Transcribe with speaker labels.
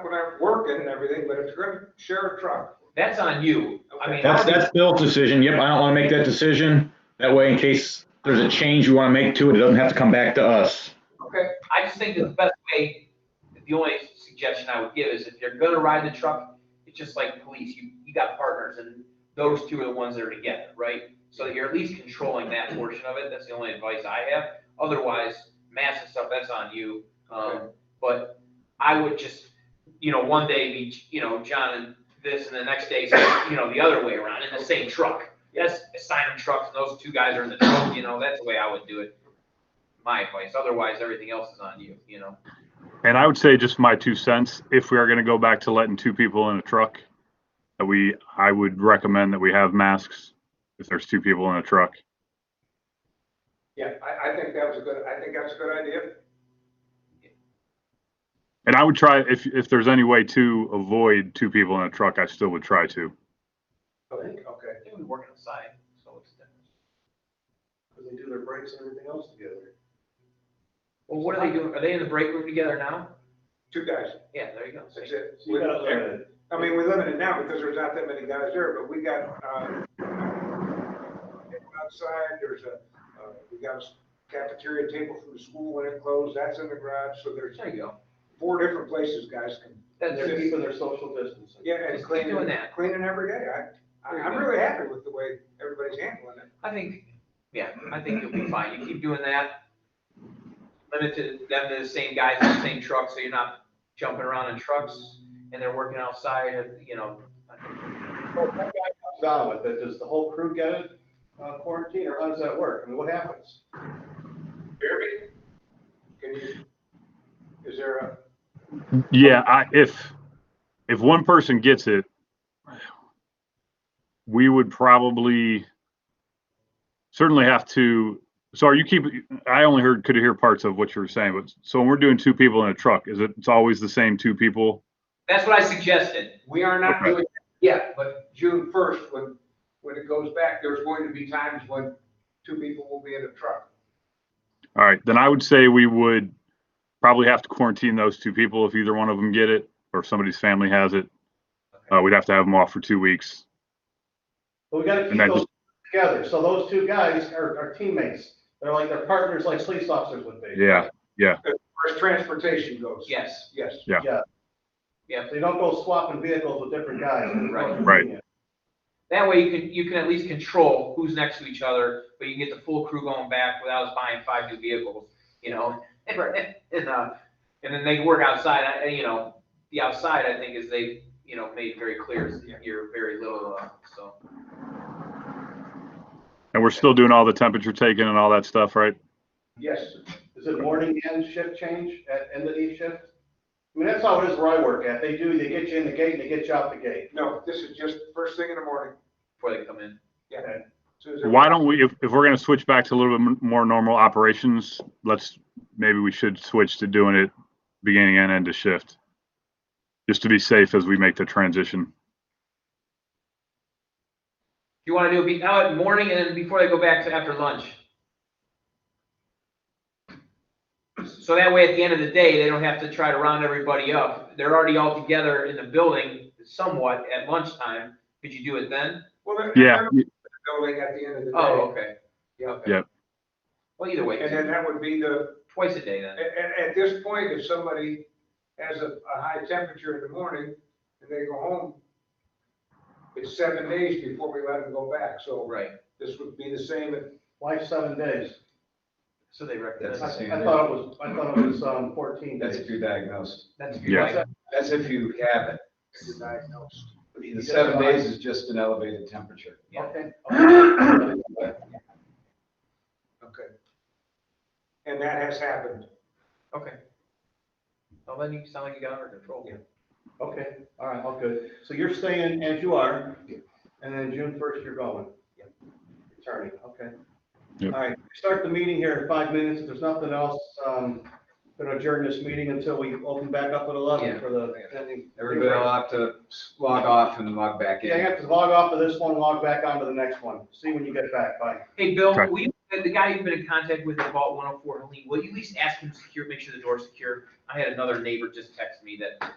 Speaker 1: when I'm working and everything, but if you're gonna share a truck.
Speaker 2: That's on you. I mean,
Speaker 3: That's, that's Bill's decision. Yep, I don't want to make that decision. That way, in case there's a change you want to make to it, it doesn't have to come back to us.
Speaker 1: Okay,
Speaker 2: I just think that the best way, the only suggestion I would give is if you're gonna ride the truck, it's just like police, you, you got partners and those two are the ones that are together, right? So that you're at least controlling that portion of it, that's the only advice I have. Otherwise, massive stuff, that's on you. Um, but I would just, you know, one day be, you know, John and this and the next day, you know, the other way around in the same truck. Yes, assign them trucks and those two guys are in the truck, you know, that's the way I would do it my advice. Otherwise, everything else is on you, you know?
Speaker 4: And I would say just my two cents, if we are going to go back to letting two people in a truck, that we, I would recommend that we have masks if there's two people in a truck.
Speaker 1: yeah, I, I think that was a good, I think that's a good idea.
Speaker 4: And I would try, if, if there's any way to avoid two people in a truck, I still would try to.
Speaker 1: Okay, okay,
Speaker 2: I think we work outside, so it's different.
Speaker 5: because they do their breaks and everything else together.
Speaker 2: Well, what are they doing? Are they in the break room together now?
Speaker 1: two guys,
Speaker 2: Yeah, there you go.
Speaker 1: that's it.
Speaker 5: So you gotta limit it.
Speaker 1: I mean, we limit it now because there's not that many guys there, but we got, uh, outside, there's a, uh, we got a cafeteria table from the school when it closed, that's in the garage, so there's
Speaker 2: There you go.
Speaker 1: four different places guys can,
Speaker 2: That's
Speaker 5: They're
Speaker 2: it.
Speaker 5: keeping their social distancing.
Speaker 1: yeah, and
Speaker 2: Just keep
Speaker 1: cleaning,
Speaker 2: doing that.
Speaker 1: cleaning every day. I, I- I'm really happy with the way everybody's handling it.
Speaker 2: I think, yeah, I think you'll be fine. You keep doing that. Limit to them to the same guys in the same truck, so you're not jumping around in trucks and they're working outside, and, you know.
Speaker 5: Well, if that guy comes out with it, does the whole crew get it uh, quarantine, or how does that work? I mean, what happens?
Speaker 1: Jeremy, can you, is there a,
Speaker 4: Yeah, I, if, if one person gets it, we would probably certainly have to, so are you keep, I only heard, could hear parts of what you were saying, but so when we're doing two people in a truck, is it, it's always the same two people?
Speaker 2: That's what I suggested.
Speaker 1: we are not
Speaker 4: Okay.
Speaker 1: doing that yet, but June first, when, when it goes back, there's going to be times when two people will be in a truck.
Speaker 4: All right, then I would say we would probably have to quarantine those two people if either one of them get it or if somebody's family has it. Uh, we'd have to have them off for two weeks.
Speaker 5: But we gotta keep
Speaker 4: And that
Speaker 5: those together, so those two guys are, are teammates, they're like, they're partners like police officers would be.
Speaker 4: Yeah,
Speaker 1: As transportation goes.
Speaker 2: Yes.
Speaker 1: Yes.
Speaker 5: They don't go swapping vehicles with different guys.
Speaker 2: Right.
Speaker 4: Right.
Speaker 2: That way you can, you can at least control who's next to each other, but you can get the full crew going back without us buying five new vehicles, you know? And, uh, and then they can work outside, I, you know, the outside, I think, is they, you know, made very clear, is you're very little, uh, so.
Speaker 4: and we're still doing all the temperature taking and all that stuff, right?
Speaker 1: Yes.
Speaker 5: Is it morning and shift change at end of each shift? I mean, that's how it is where I work at, they do, they get you in the gate and they get you out the gate.
Speaker 1: No, this is just first thing in the morning.
Speaker 2: Before they come in.
Speaker 1: Susan.
Speaker 4: Why don't we, if, if we're gonna switch back to a little bit m- more normal operations, let's, maybe we should switch to doing it beginning and end of shift. Just to be safe as we make the transition.
Speaker 2: You wanna do it be, out at morning and then before they go back to after lunch? So that way, at the end of the day, they don't have to try to round everybody up. They're already all together in the building somewhat at lunchtime. Could you do it then?
Speaker 1: Well, they're-
Speaker 4: Yeah,
Speaker 1: they're Building at the end of the day.
Speaker 2: Oh, okay. Yeah, okay.
Speaker 4: Yep.
Speaker 2: Well, either way,
Speaker 1: And then that would be the,
Speaker 2: twice a day
Speaker 1: at,
Speaker 2: then.
Speaker 1: at, at this point, if somebody has a, a high temperature in the morning and they go home, it's seven days before we let them go back, so
Speaker 2: Oh, Right.
Speaker 1: this would be the same if
Speaker 5: Why seven days?
Speaker 2: So they
Speaker 5: I I
Speaker 2: recommend.
Speaker 6: That's-
Speaker 5: thought it was, I thought it was, um, fourteen
Speaker 6: That's
Speaker 5: days.
Speaker 6: if you're diagnosed.
Speaker 2: That's good.
Speaker 4: Yeah.
Speaker 2: Like,
Speaker 6: That's if you have it.
Speaker 1: you're diagnosed.
Speaker 6: The seven days is just an elevated temperature.
Speaker 2: Yeah.
Speaker 5: Okay.
Speaker 1: Okay. And that has happened.
Speaker 2: Okay. Well, then you sound like you got it under control.
Speaker 1: Yeah.
Speaker 5: Okay, all right, all good. So you're staying as you are, and then June first, you're going?
Speaker 2: Yep.
Speaker 5: Returning, okay.
Speaker 4: Yep.
Speaker 5: All right, start the meeting here in five minutes. If there's nothing else, um, gonna adjourn this meeting until we open back up at
Speaker 2: Yeah.
Speaker 5: eleven for the pending.
Speaker 6: Everybody will have to log off and log back
Speaker 5: Yeah, you
Speaker 6: in.
Speaker 5: have to log off of this one, log back onto the next one. See when you get back, bye.
Speaker 2: Hey, Bill,
Speaker 4: Okay.
Speaker 2: will you, the guy you've been in contact with at Vault 104, Helene, will you at least ask him to secure, make sure the door's secure? I had another neighbor just text me that